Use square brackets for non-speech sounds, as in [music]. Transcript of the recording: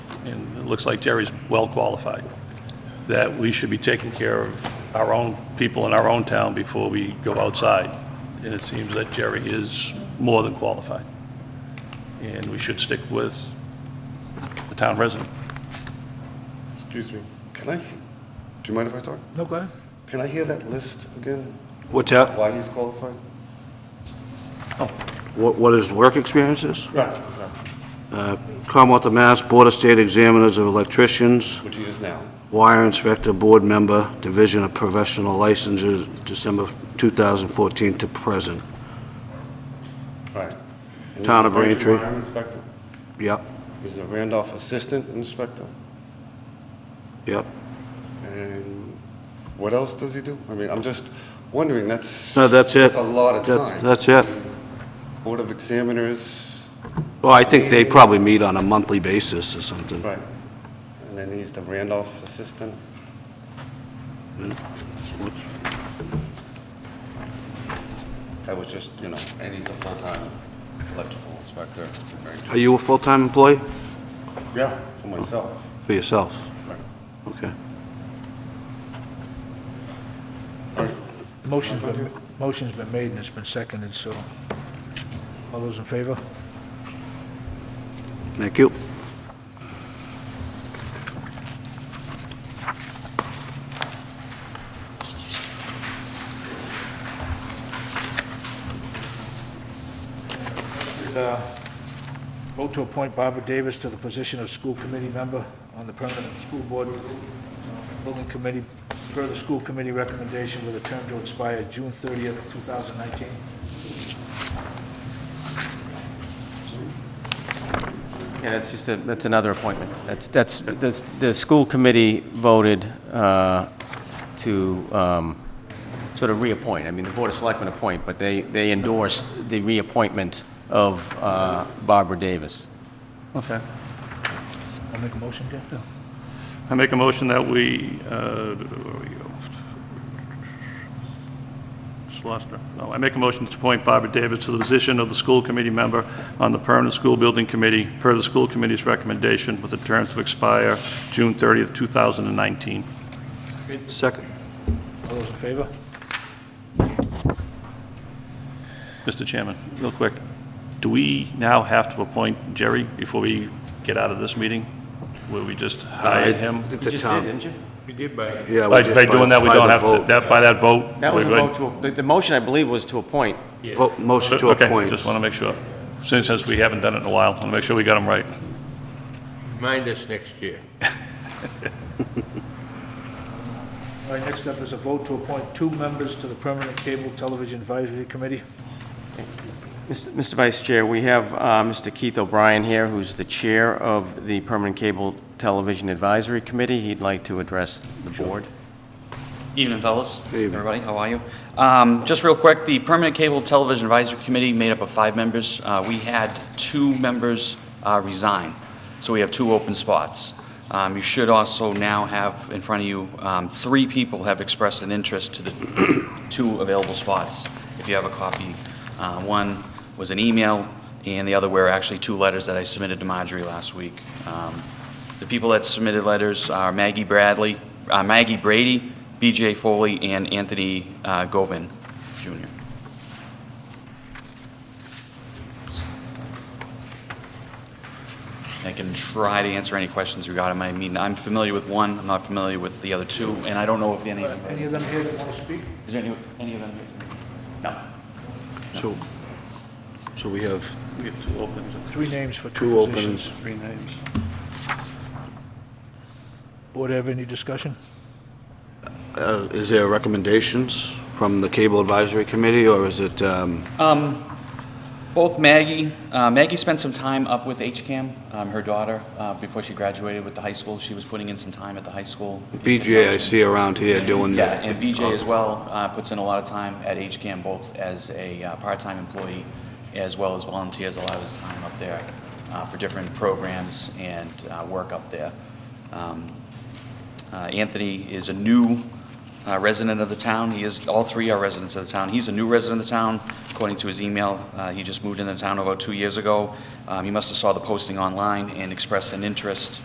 and it looks like Jerry's well qualified, that we should be taking care of our own people in our own town before we go outside. And it seems that Jerry is more than qualified. And we should stick with the town resident. Excuse me, can I, do you mind if I talk? No, go ahead. Can I hear that list again? What's that? Why he's qualified? What what his work experience is? Right. Commonwealth of Mass Board of State Examiners of Electricians, Which he is now. Wire Inspector, Board Member, Division of Professional Licenses, December 2014 to present. Right. And Town of he's a Braintree. fire Inspector. Yep, He's a Randolph Assistant Inspector. yep. And what else does he do? I mean, I'm just wondering, that's. No, that's it. That's a lot of That- time. That's it. Board of Examiners, Well, I think they probably meet on a monthly basis or something. right. And then he's the Randolph Assistant. That was just, you know, and he's a full-time electrical inspector. Are you a full-time employee? Yeah, for myself. For yourself? Right. Okay. Motion's been, motion's been made and it's been seconded, so all those in favor? Thank you. uh, Vote to appoint Barbara Davis to the position of school committee member on the permanent school board uh, building committee, per the school committee recommendation with a term to expire June 30th, 2019. Yeah, that's just, a- that's another appointment. That's, that's, that's- the school committee voted uh, to um, sort of reappoint. I mean, the Board of Selectmen appoint, but they, they endorsed the reappointment of uh, Barbara Davis. Okay. I'll make a motion, Jim? I make a motion that we, uh, where we go? Just lost her. No, I make a motion to appoint Barbara Davis to the position of the school committee member on the permanent school building committee, per the school committee's recommendation, with a term to expire June 30th, 2019. Second. All those in favor? Mr. Chairman, real quick, do we now have to appoint Jerry before we get out of this meeting? Will we just hire him? It's You a just did, town. didn't you? Yeah, we By just- by doing that, we by the don't have to, vote. that by that vote? That was a we're good? vote to, the, the motion, I believe, was to appoint. Vote- Motion to Okay, appoint. just want to make sure. Since, since we haven't done it in a while, I want to make sure we got them right. Mind us next year. All right, next up is a vote to appoint two members to the permanent cable television advisory committee. Mr. Mr. Vice Chair, we have uh, Mr. Keith O'Brien here, who's the chair of the Permanent Cable Television Advisory Committee. He'd like to address the board. Evening, fellas. Everybody, how are you? Um, Just real quick, the Permanent Cable Television Advisory Committee made up of five members. Uh, We had two members uh, resign, so we have two open spots. Um, You should also now have in front of you, um, three people have expressed an interest to the [coughs] two available spots, if you have a copy. Uh, One was an email, and the other were actually two letters that I submitted to Marjorie last week. Um, the people that submitted letters are Maggie Bradley, uh, Maggie Brady, BJ Foley, and Anthony uh, Govin, Jr. I can try to answer any questions regarding my, I mean, I'm familiar with one, I'm not familiar with the other two, and I don't know if any of them, Any of them here that want to speak? is there any, any of them? No. So, so we have We have two openings and Three names for two two positions. openings. three names. Board have any discussion? Uh, Is there recommendations from the Cable Advisory Committee, or is it, um, Both Maggie, uh, Maggie spent some time up with HCAM, um, her daughter, uh, before she graduated with the high school. She was putting in some time at the high school. BJ I see around here doing Yeah, that? Oh. and BJ as well uh, puts in a lot of time at HCAM, both as a uh, part-time employee as well as volunteers a lot of his time up there uh, for different programs and uh, work up there. Um, uh, Anthony is a new uh, resident of the town. He is, all three are residents of the town. He's a new resident of the town, according to his email. Uh, He just moved into the town about two years ago. Um, He must have saw the posting online and expressed an interest